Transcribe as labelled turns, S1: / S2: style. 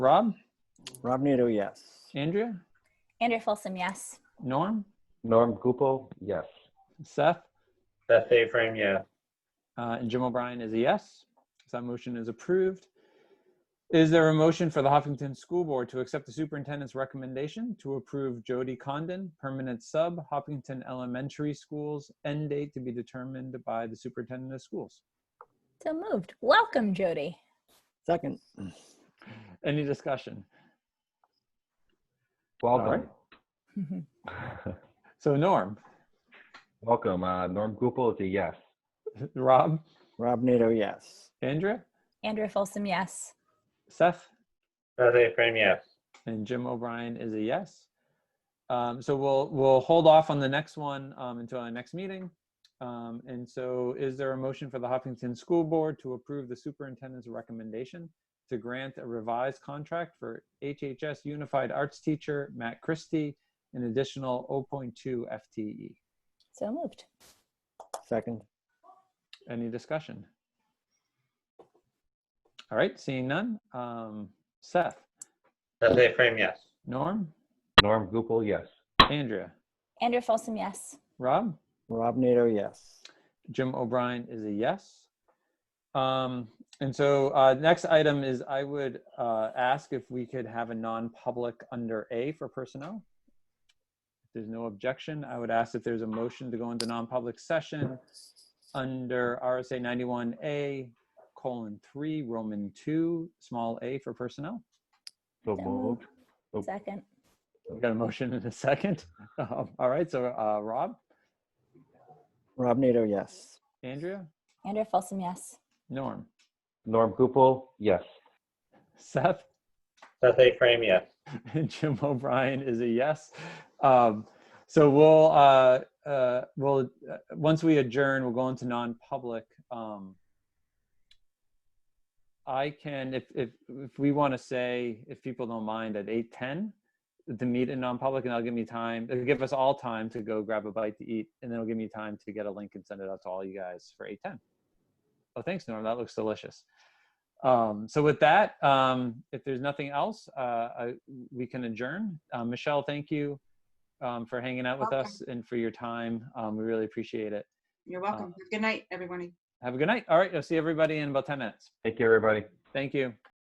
S1: Rob,
S2: Rob Nato, yes.
S1: Andrea,
S3: Andrea Folsom, yes.
S1: Norm,
S4: Norm Gupel, yes.
S1: Seth,
S5: Seth A. Frame, yeah.
S1: uh, and Jim O'Brien is a yes. So that motion is approved. Is there a motion for the Huffington School Board to accept the superintendent's recommendation to approve Jody Condon, permanent sub, Huffington Elementary Schools, end date to be determined by the superintendent of schools?
S3: So moved. Welcome, Jody.
S2: Second,
S1: Any discussion?
S4: Well
S1: All right.
S4: done.
S1: So Norm,
S4: Welcome. Uh, Norm Gupel is a yes.
S1: Rob,
S2: Rob Nato, yes.
S1: Andrea,
S3: Andrea Folsom, yes.
S1: Seth,
S5: Seth A. Frame, yeah.
S1: And Jim O'Brien is a yes. Um, so we'll we'll hold off on the next one um, until our next meeting. Um, and so, is there a motion for the Huffington School Board to approve the superintendent's recommendation to grant a revised contract for HHS Unified Arts teacher Matt Christie an additional 0.2 FTE?
S3: So moved.
S2: Second,
S1: Any discussion? All right, seeing none. Um, Seth,
S5: Seth A. Frame, yes.
S1: Norm,
S4: Norm Gupel, yes.
S1: Andrea,
S3: Andrea Folsom, yes.
S1: Rob.
S2: Rob Nato, yes.
S1: Jim O'Brien is a yes. Um, and so uh, next item is I would uh, ask if we could have a non-public under A for personnel. If there's no objection, I would ask if there's a motion to go into non-public session under RSA 91A colon three Roman two small a for personnel.
S4: So
S3: So
S4: moved. Oh.
S3: Second.
S1: We got a motion in a second. Um, all right, so uh, Rob,
S2: Rob Nato, yes.
S1: Andrea,
S3: Andrea Folsom, yes.
S1: Norm,
S4: Norm Gupel, yes.
S1: Seth,
S5: Seth A. Frame, yes.
S1: and Jim O'Brien is a yes. Um, so we'll uh, uh, we'll uh, once we adjourn, we'll go into non-public. Um, I can if if if we want to say if people don't mind at eight ten to meet in non-public, and that'll give me time. It'll give us all time to go grab a bite to eat, and then it'll give me time to get a link and send it out to all you guys for eight ten. Oh, thanks, Norm. That looks delicious. Um, so with that, um, if there's nothing else, uh, I, we can adjourn. Um, Michelle, thank you um, for hanging out with
S6: Welcome.
S1: us and for your time. Um, we really appreciate it.
S6: You're welcome. Have a Good night, everybody.
S1: Have a good night. All right, I'll see everybody in about 10 minutes.
S4: Thank you, everybody.
S1: Thank you.